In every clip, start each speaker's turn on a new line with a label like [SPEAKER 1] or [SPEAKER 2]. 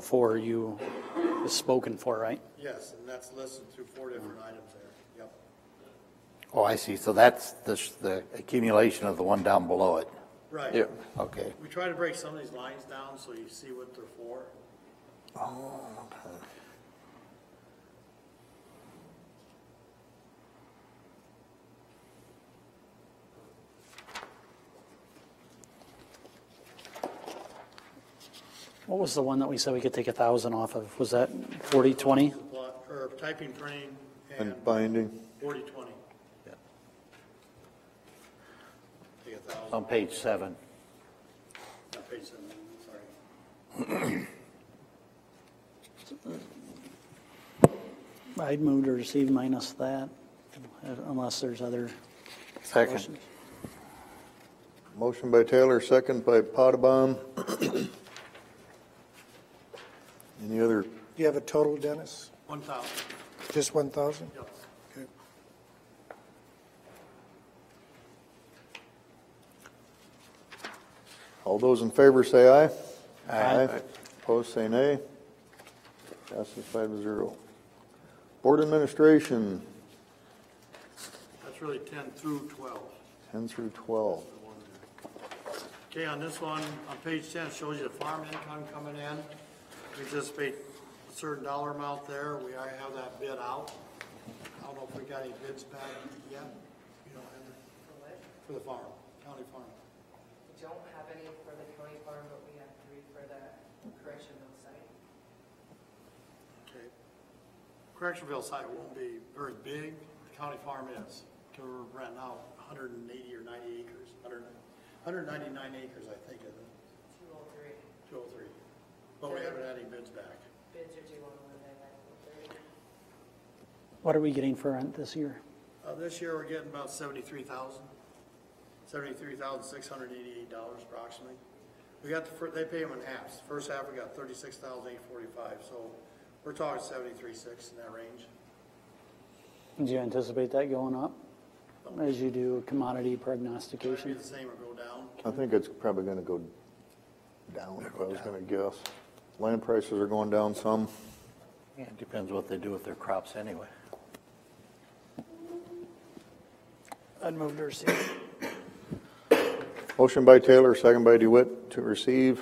[SPEAKER 1] four you is spoken for, right?
[SPEAKER 2] Yes, and that's listed through four different items there. Yep.
[SPEAKER 3] Oh, I see. So that's the, sh- the accumulation of the one down below it.
[SPEAKER 2] Right.
[SPEAKER 4] Yeah.
[SPEAKER 3] Okay.
[SPEAKER 2] We try to break some of these lines down so you see what they're for.
[SPEAKER 1] What was the one that we said we could take a thousand off of? Was that forty, twenty?
[SPEAKER 2] Lot- Or typing, printing, and
[SPEAKER 4] And binding,
[SPEAKER 2] forty, twenty. Take a thousand,
[SPEAKER 3] On page seven.
[SPEAKER 2] not page seven, sorry.
[SPEAKER 1] I'd move to receive minus that, unless there's other
[SPEAKER 3] Second.
[SPEAKER 1] questions.
[SPEAKER 4] motion by Taylor, second by Potabom. Any other,
[SPEAKER 5] Do you have a total, Dennis?
[SPEAKER 2] One thousand,
[SPEAKER 5] Just 1,000?
[SPEAKER 2] yep.
[SPEAKER 5] Okay.
[SPEAKER 4] all those in favor say aye. Aye. Opposed, say nay. Passes five to zero. Board Administration,
[SPEAKER 2] That's really ten through twelve.
[SPEAKER 4] 10 through 12.
[SPEAKER 2] Okay, on this one, on page ten, it shows you the farm income coming in. We anticipate a certain dollar amount there. We already have that bid out. I don't know if we got any bids back yet. You don't have it? For the farm, county farm.
[SPEAKER 6] We don't have any for the county farm, but we have three for the correctional site.
[SPEAKER 2] Okay. Correctionville site won't be very big. The county farm is. We're renting out hundred and eighty or ninety acres, hundred, hundred ninety-nine acres, I think, is
[SPEAKER 6] Two oh three,
[SPEAKER 2] two oh three. But we haven't had any bids back.
[SPEAKER 6] bids are due on Monday, nine oh three.
[SPEAKER 1] What are we getting for rent this year?
[SPEAKER 2] Uh, this year, we're getting about seventy-three thousand, seventy-three thousand, six hundred eighty-eight dollars approximately. We got the, fir- they pay them in halves. First half, we got thirty-six thousand, eight forty-five, so we're talking seventy-three, six in that range.
[SPEAKER 1] Do you anticipate that going up as you do commodity
[SPEAKER 2] Might be
[SPEAKER 1] prognostication?
[SPEAKER 2] the same or go down.
[SPEAKER 4] I think it's probably going to go down, if I was going to guess. Land prices are going down some.
[SPEAKER 3] Yeah, It depends what they do with their crops anyway.
[SPEAKER 5] I'd move to receive.
[SPEAKER 4] Motion by Taylor, second by DeWitt, to receive.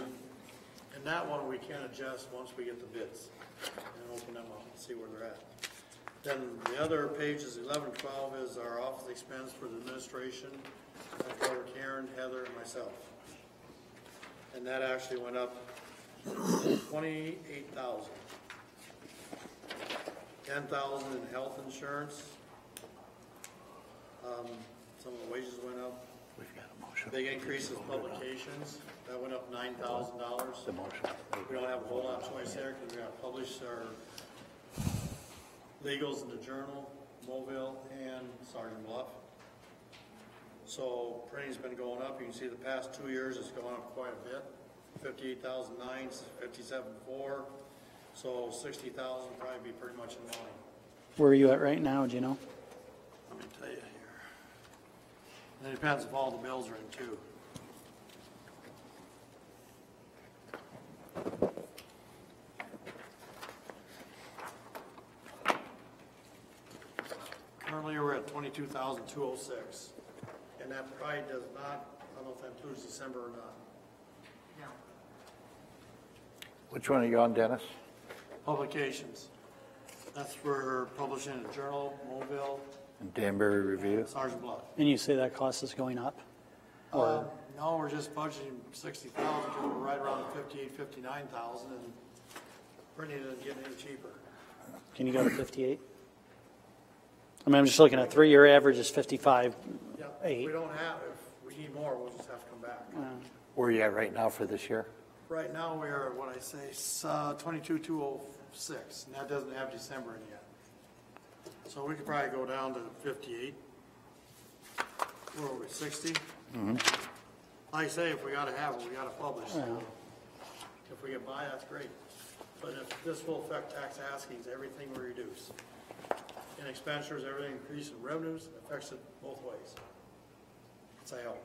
[SPEAKER 2] And that one, we can adjust once we get the bids and open them up and see where they're at. Then the other pages, eleven, twelve, is our office expense for the administration. I covered Karen, Heather, and myself. And that actually went up twenty-eight thousand. Ten thousand in health insurance. Um, some of the wages went up.
[SPEAKER 3] We've got a motion.
[SPEAKER 2] Big increase in publications, that went up nine thousand dollars.
[SPEAKER 3] The motion.
[SPEAKER 2] We don't have a whole lot of choice there, because we gotta publish our legals in the Journal, Mobile, and Sergeant Bluff. So printing's been going up, you can see the past two years, it's gone up quite a bit, fifty-eight thousand nine, fifty-seven four, so sixty thousand probably be pretty much in line.
[SPEAKER 1] Where are you at right now, do you know?
[SPEAKER 2] Let me tell you here. And it depends if all the bills are in too. Currently, we're at twenty-two thousand, two oh six, and that probably does not, I don't know if that includes December or not.
[SPEAKER 6] No,
[SPEAKER 3] Which one are you on, Dennis?
[SPEAKER 2] Publications. That's for publishing in the Journal, Mobile,
[SPEAKER 3] Danbury Review?
[SPEAKER 2] Sergeant Bluff.
[SPEAKER 1] And you say that cost is going up?
[SPEAKER 2] Uh, No, we're just budgeting sixty thousand, because we're right around fifty-eight, fifty-nine thousand, and printing isn't getting any cheaper.
[SPEAKER 1] Can you go to fifty-eight? I mean, I'm just looking at three-year average is fifty-five,
[SPEAKER 2] Yeah,
[SPEAKER 1] eight.
[SPEAKER 2] We don't have, if we need more, we'll just have to come back.
[SPEAKER 3] Where are you at right now for this year?
[SPEAKER 2] Right now, we are, what I say, s- uh, twenty-two, two oh six, and that doesn't have December in yet. So we could probably go down to fifty-eight. Where are we, 60 Like I say, if we gotta have it, we gotta publish. If we can buy, that's great. But if, this will affect tax askings, everything we reduce. In expenditures, everything increase in revenues, affects it both ways. It's a help.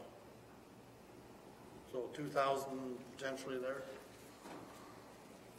[SPEAKER 2] So two thousand potentially there.